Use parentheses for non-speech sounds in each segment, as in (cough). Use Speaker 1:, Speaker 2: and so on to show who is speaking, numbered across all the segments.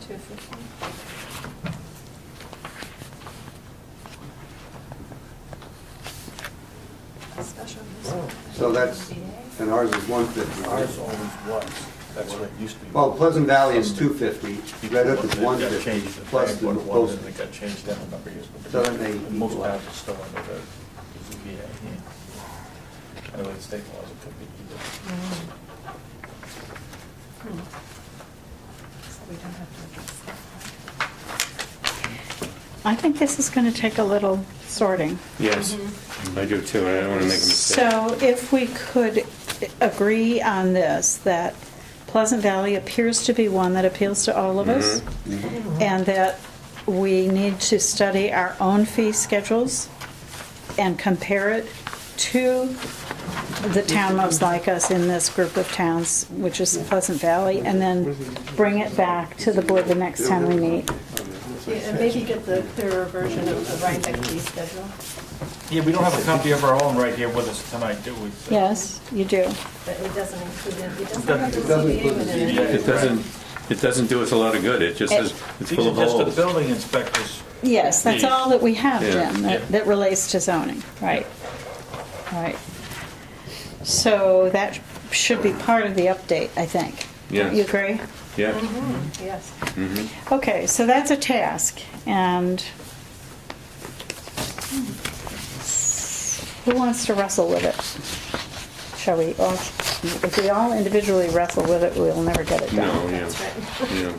Speaker 1: two fifty. Special use.
Speaker 2: So that's, and ours is one fifty,
Speaker 3: Ours
Speaker 2: right?
Speaker 3: always was, that's what it used to be.
Speaker 2: Well, Pleasant Valley is two fifty, Red Hook is
Speaker 3: It got
Speaker 2: one
Speaker 3: changed,
Speaker 2: fifty,
Speaker 3: the
Speaker 2: plus
Speaker 3: plan
Speaker 2: the
Speaker 3: what it was,
Speaker 2: posted.
Speaker 3: and It got changed down a number of years. but
Speaker 2: So that may
Speaker 3: Most
Speaker 2: equalize.
Speaker 3: towns are still under the ZBA. yeah. Anyway, the state laws, it could be either.
Speaker 1: So we don't have to address that.
Speaker 4: I think this is going to take a little sorting.
Speaker 5: Yes, I do too, and I don't want to make a mistake.
Speaker 4: So if we could agree on this, that Pleasant Valley appears to be one that appeals to all of us,
Speaker 2: Mm-hmm.
Speaker 5: Mm-hmm.
Speaker 4: and that we need to study our own fee schedules and compare it to the town most like us in this group of towns, which is Pleasant Valley, and then bring it back to the board the next time we meet.
Speaker 1: Yeah, And maybe get the clearer version of the Rhinebeck fee schedule.
Speaker 3: Yeah, we don't have a copy of our own right here with us tonight, do we?
Speaker 4: Yes, you do.
Speaker 1: But it doesn't include, it It doesn't have the
Speaker 2: It doesn't
Speaker 1: CBA
Speaker 2: include the
Speaker 1: within
Speaker 3: CBA.
Speaker 1: it.
Speaker 5: It doesn't, it doesn't do us a lot of good, it just
Speaker 4: It-
Speaker 5: is, it's
Speaker 3: These
Speaker 5: full
Speaker 3: are
Speaker 5: of
Speaker 3: just the
Speaker 5: holes.
Speaker 3: building inspectors.
Speaker 4: Yes, that's
Speaker 5: Yes.
Speaker 4: all that we have,
Speaker 5: Yeah.
Speaker 4: Jim,
Speaker 3: Yeah.
Speaker 4: that that relates to zoning, right, right. So that should be part of the update, I think. Don't You
Speaker 5: Yes.
Speaker 4: agree?
Speaker 5: Yeah,
Speaker 1: Yes.
Speaker 4: Okay, so that's a task, and who wants to wrestle with it? Shall we all, if we all individually wrestle with it, we'll never get it
Speaker 5: no,
Speaker 4: done.
Speaker 5: yeah, yeah.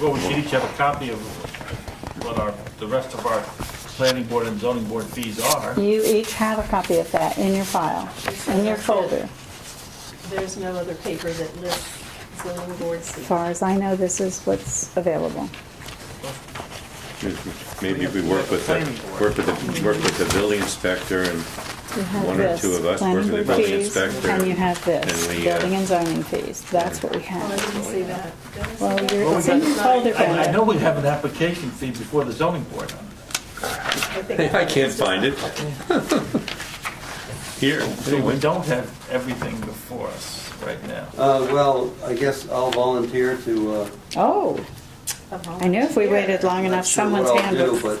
Speaker 3: Well, we should each have a copy of what our, the rest of our planning board and zoning board fees are.
Speaker 4: You each have a copy of that in your file, in your folder.
Speaker 1: There's no other paper that lists zoning board
Speaker 4: As
Speaker 1: seats.
Speaker 4: far as I know, this is what's available.
Speaker 5: Maybe we work with the, work with the, work with the building inspector and
Speaker 4: You have
Speaker 5: One or
Speaker 4: this,
Speaker 5: two of us
Speaker 4: planning
Speaker 5: work with the
Speaker 4: board
Speaker 5: building
Speaker 4: fees,
Speaker 5: inspector,
Speaker 4: And you have this,
Speaker 5: and we, uh,
Speaker 4: building and zoning fees, that's what we
Speaker 1: Oh, I
Speaker 4: have.
Speaker 1: didn't see that. Did I see
Speaker 4: Well,
Speaker 1: that?
Speaker 4: you're-
Speaker 3: it's in
Speaker 4: your folder,
Speaker 1: Sorry.
Speaker 3: I I know we have an application fee before the zoning board.
Speaker 1: I think
Speaker 5: I can't find it. (laughs) Here,
Speaker 3: So we don't have everything before us right now.
Speaker 2: Uh, well, I guess I'll volunteer to, uh.
Speaker 4: Oh, I knew if we waited long
Speaker 2: I'm
Speaker 4: enough,
Speaker 2: not sure
Speaker 4: someone's
Speaker 2: what I'll
Speaker 4: hand
Speaker 2: do,
Speaker 4: would,
Speaker 2: but I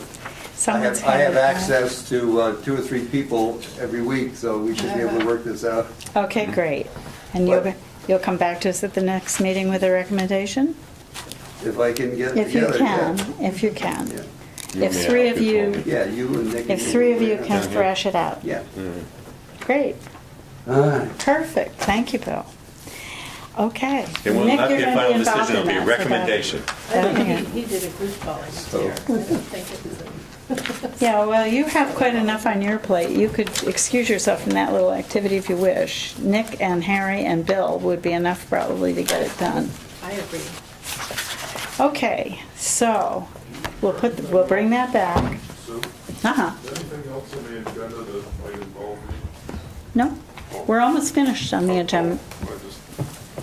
Speaker 4: someone's
Speaker 2: have, I
Speaker 4: hand
Speaker 2: have
Speaker 4: would. go up.
Speaker 2: access to, uh, two or three people every week, so we should be able to work this out.
Speaker 4: Okay, great. And you'll,
Speaker 2: But-
Speaker 4: you'll come back to us at the next meeting with a recommendation?
Speaker 2: If I can get it
Speaker 4: If you
Speaker 2: together. yeah.
Speaker 4: can, if you can.
Speaker 2: Yeah.
Speaker 5: You
Speaker 4: If
Speaker 5: may
Speaker 4: three
Speaker 5: have
Speaker 4: of
Speaker 5: to call
Speaker 4: you,
Speaker 5: me.
Speaker 2: Yeah, you and Nick.
Speaker 4: if three of you can
Speaker 5: Yeah.
Speaker 4: thrash it out.
Speaker 2: Yeah.
Speaker 4: Great,
Speaker 2: All right. (laughs)
Speaker 4: perfect, thank you, Bill. Okay.
Speaker 5: It will
Speaker 4: Nick,
Speaker 5: not be
Speaker 4: you're
Speaker 5: a
Speaker 4: gonna
Speaker 5: final
Speaker 4: involved
Speaker 5: decision,
Speaker 4: in
Speaker 5: it'll be
Speaker 4: that, so
Speaker 5: a
Speaker 4: that-
Speaker 5: recommendation.
Speaker 1: I think (laughs) he, he did a group call there. I don't think it was a.
Speaker 4: Yeah, well, you have quite enough on your plate. You could excuse yourself from that little activity if you wish. Nick and Harry and Bill would be enough probably to get it done.
Speaker 1: I agree.
Speaker 4: Okay, so we'll put, we'll bring that back.
Speaker 6: So,
Speaker 4: Uh-huh.
Speaker 6: anything else on the agenda that might involve me?
Speaker 4: No, we're almost finished on the agenda.
Speaker 6: I just,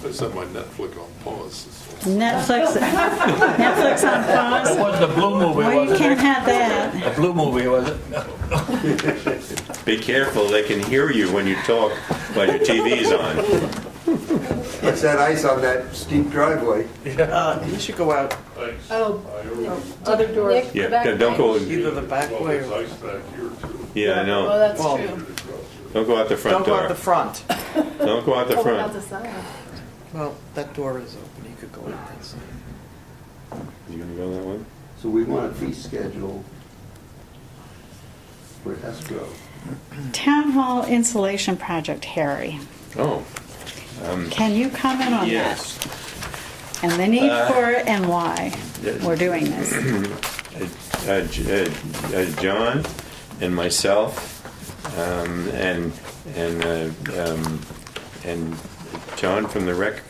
Speaker 6: I set my Netflix on pause. that's all.
Speaker 4: Netflix, (laughs) Netflix on
Speaker 3: It
Speaker 4: pause.
Speaker 3: wasn't a blue movie,
Speaker 4: Well, you
Speaker 3: was it?
Speaker 4: can't have that.
Speaker 3: A blue movie, was it?
Speaker 5: Be careful, they can hear you when you talk while your TV's on.
Speaker 2: It's that ice on that steep driveway.
Speaker 7: Uh, you should go out
Speaker 6: Ice.
Speaker 1: Oh,
Speaker 6: I always,
Speaker 1: other door.
Speaker 5: Yeah, don't go,
Speaker 7: either the back
Speaker 6: well,
Speaker 7: way
Speaker 6: there's
Speaker 7: or,
Speaker 6: ice back here too.
Speaker 5: yeah, I
Speaker 1: Well,
Speaker 5: know.
Speaker 1: that's
Speaker 7: Well,
Speaker 1: true.
Speaker 6: It grows.
Speaker 5: Don't go out the
Speaker 7: don't
Speaker 5: front
Speaker 7: go out
Speaker 5: door.
Speaker 7: the front.
Speaker 5: Don't go out the
Speaker 1: Oh, without the
Speaker 5: front.
Speaker 1: sign.
Speaker 7: Well, that door is open, you could go out that side.
Speaker 5: You gonna go that way?
Speaker 2: So we want a fee schedule for escrow.
Speaker 4: Town Hall insulation project, Harry.
Speaker 5: Oh,
Speaker 4: Can you comment on that?
Speaker 5: yes.
Speaker 4: And the need
Speaker 5: Uh,
Speaker 4: for it and why we're doing this.
Speaker 5: uh, J- uh, uh, John and myself, um, and, and, uh, um, and John from the Rec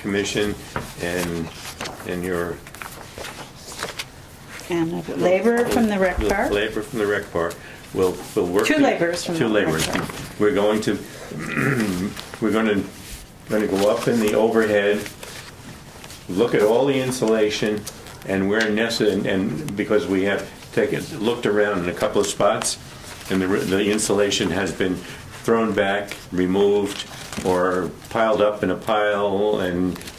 Speaker 5: Commission, and, and your
Speaker 4: And a laborer from the rec bar.
Speaker 5: Labor from the rec bar. We'll, we'll work.
Speaker 4: Two
Speaker 5: to-
Speaker 4: laborers from
Speaker 5: Two
Speaker 4: the rec
Speaker 5: laborers.
Speaker 4: bar.
Speaker 5: We're going to, (clears throat) we're gonna, gonna go up in the overhead, look at all the insulation, and where necessary, and because we have taken, looked around in a couple of spots, and the, the insulation has been thrown back, removed, or piled up in a pile, and